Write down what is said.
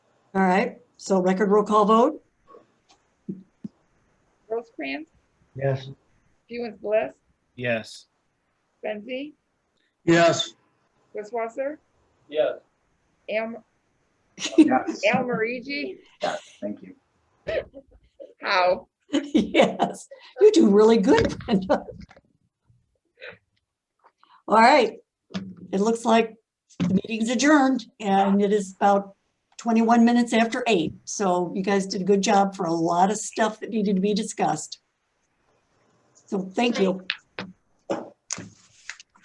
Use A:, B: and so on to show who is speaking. A: All right, so record roll call vote?
B: Rosecrans,
C: Yes.
B: Hewens Bliss,
D: Yes.
B: Benzie,
C: Yes.
B: Wisswasser,
D: Yes.
B: Al,
E: Yes,
B: Al Marigi,
E: thank you.
B: Howe.
A: Yes, you do really good, Brenda. All right, it looks like the meeting's adjourned and it is about 21 minutes after eight. So you guys did a good job for a lot of stuff that needed to be discussed. So thank you.